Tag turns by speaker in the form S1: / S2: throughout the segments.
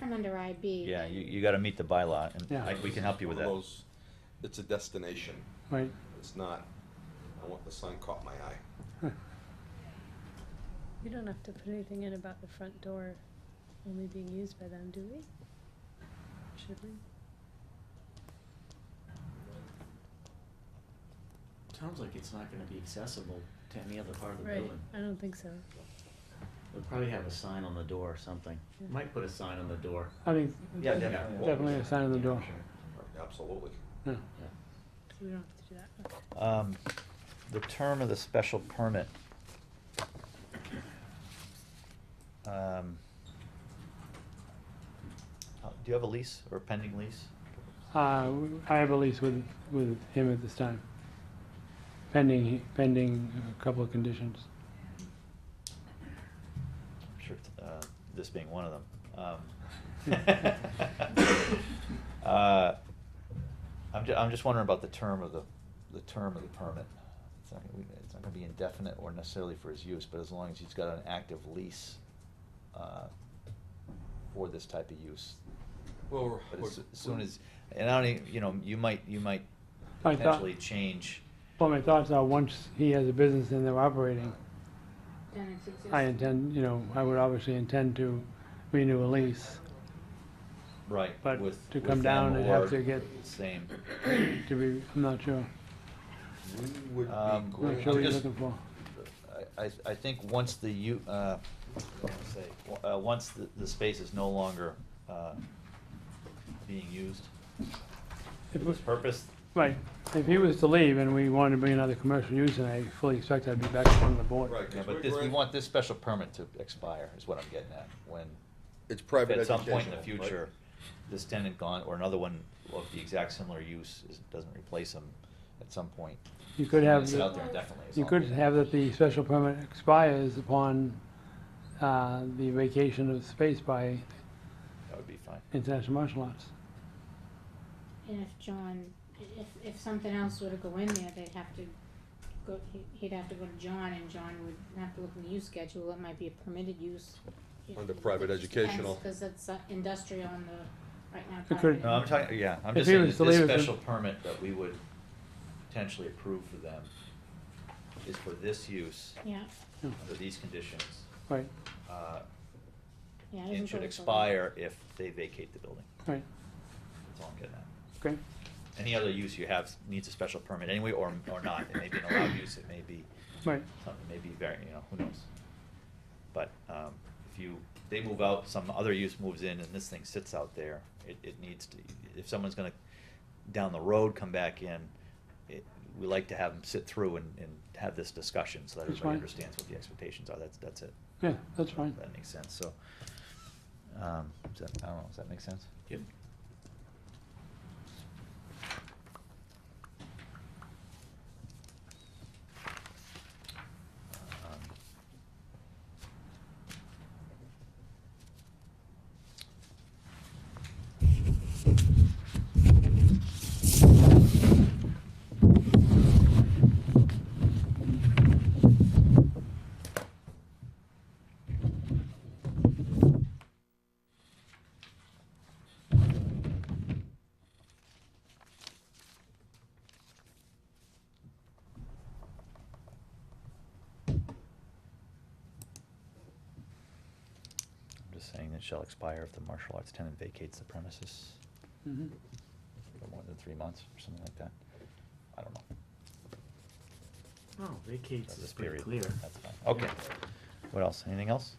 S1: come under IB.
S2: Yeah, you, you gotta meet the bylaw, and
S3: Yeah.
S2: like, we can help you with
S4: One
S2: that.
S4: of those- It's a destination,
S3: right?
S4: it's not, I want the sign caught my eye.
S5: We don't have to put anything in about the front door only being used by them, do we? Should we?
S6: Sounds like it's not gonna be accessible to any other part of the
S5: Right,
S6: building.
S5: I don't think so.
S6: They'll probably have a sign on the door or something.
S5: Yeah.
S6: Might put a sign on the door.
S3: I think
S6: Yeah,
S4: definitely.
S3: Uh, definitely a sign on the
S6: Yeah,
S3: door.
S6: sure.
S4: Right, Absolutely.
S3: Yeah.
S6: Yeah.
S5: We don't have to do that. Okay.
S2: Um, the term of the special permit. Um, uh, Do you have a lease or a pending lease?
S3: Uh, I have a lease with, with him at this time. Pending, pending a couple of conditions.
S2: I'm sure, uh, this being one of them. Um, uh, I'm ju- I'm just wondering about the term of the, the term of the permit. It's not gonna, be- it's not gonna be indefinite or necessarily for his use, but as long as he's got an active lease, uh, for this type of use.
S4: Well, we're-
S2: But
S4: we're-
S2: as soon as, and I don't even, you know, you might, you might
S3: I thought-
S2: potentially change.
S3: Well, my thoughts are, once he has a business and they're operating,
S1: Then it's existing.
S3: I intend, you know, I would obviously intend to renew a lease
S2: Right.
S3: But
S2: with-
S3: to
S2: with
S3: come down,
S2: them
S3: it'd have
S2: or
S3: to get-
S2: Same.
S3: to be, I'm not sure,
S4: We
S2: Um,
S4: would be
S2: Well,
S3: not
S4: going
S3: sure what
S2: I'm
S3: you're
S2: just-
S3: looking for.
S2: I, I, I think once the u, uh, what do I wanna say, W- uh, once the, the space is no longer, uh, being used for
S3: If we-
S2: this purpose,
S3: Right, if he was to leave and we wanted to bring another commercial use, and I fully expect I'd be back in front of the board.
S4: Right.
S2: yeah,
S4: 'cause
S2: but
S4: we're
S2: this, we
S4: grant-
S2: want this special permit to expire, is what I'm getting at, when,
S4: It's private
S2: at some point in the
S4: educational, right?
S2: future, this tenant gone, or another one of the exact similar use is, doesn't replace him at some point.
S3: You could have
S2: It's
S3: the-
S2: out there indefinitely. is
S3: You
S2: all.
S3: could have that the special permit expires upon uh, the vacation of space by
S2: That would be fine.
S3: international martial arts.
S1: And if John, if, if something else were to go in there, they'd have to go, he- he'd have to go to John and John would have to look in the use schedule, it might be a permitted use.
S4: Under private educational.
S1: Cause it's uh, industrial on the, right now.
S3: It could-
S1: private.
S2: No, I'm talking, yeah, I'm just
S3: If he
S2: saying
S3: was
S2: that
S3: to
S2: this
S3: leave it-
S2: special permit that we would potentially approve for them is for this use,
S1: Yeah,
S3: Yeah,
S2: under these conditions,
S3: Right,
S2: uh,
S1: yeah. it
S2: and
S1: isn't
S2: should
S1: really-
S2: expire if they vacate the building.
S3: right,
S2: That's all I'm getting at.
S3: okay.
S2: Any other use you have needs a special permit anyway, or, or not, it may be an allowed use, it may be
S3: Right,
S2: something maybe very, you know, who knows? But, um, if you, they move out, some other use moves in and this thing sits out there, it, it needs to, if someone's gonna down the road come back in, it, we like to have them sit through and, and have this discussion so that
S3: That's
S2: everybody
S3: fine.
S2: understands what the expectations are, that's, that's it.
S3: yeah, that's fine.
S2: That makes sense, so, um, does that, I don't know, does that make sense?
S6: Yep.
S2: Um, I'm just saying it shall expire if the martial arts tenant vacates the premises
S3: Mhm.
S2: for more than three months or something like that. I don't know.
S6: Oh, vacates
S2: That's
S6: is
S2: a
S6: pretty
S2: period.
S6: clear.
S2: That's fine. Okay. What else? Anything else?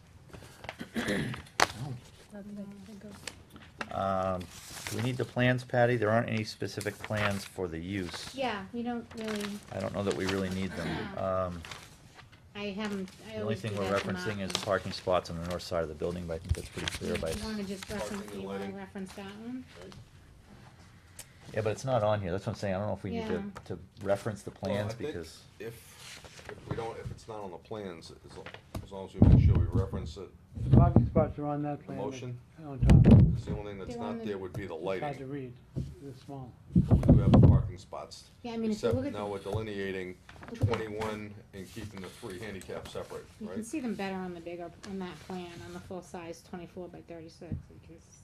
S6: No.
S5: Not that I can think of.
S2: Um, do we need the plans, Patty? There aren't any specific plans for the use.
S1: Yeah, we don't really,
S2: I don't know that we really need them. Um,
S1: I haven't, I
S2: the only
S1: always do
S2: thing we're
S1: that to
S2: referencing is
S1: Martin.
S2: parking spots on the north side of the building, but I think that's pretty clear by.
S1: You wanna just reference,
S4: Parking and
S1: you wanna
S4: lighting.
S1: reference that one?
S4: Right.
S2: Yeah, but it's not on here. That's what I'm saying. I don't know if we need to,
S1: Yeah.
S2: to reference the
S4: Well, I
S2: plans
S4: think
S2: because,
S4: If, if we don't, if it's not on the plans, as, lo- as long as we make sure we reference it,
S3: The parking spots are on that plan. but-
S4: motion?
S3: On top.
S4: 'cause the only thing that's
S1: They're on
S4: not
S1: the-
S4: there would be the
S3: It's hard to
S4: lighting.
S3: read, it's small.
S4: But We do have the parking spots.
S1: Yeah, I mean, if you
S4: Except
S1: look at
S4: now
S1: the-
S4: we're delineating
S1: Look at-
S4: twenty-one and keeping the three handicap separate,
S1: You
S4: right?
S1: can see them better on the bigger, on that plan, on the full size twenty-four by thirty-six, you can s-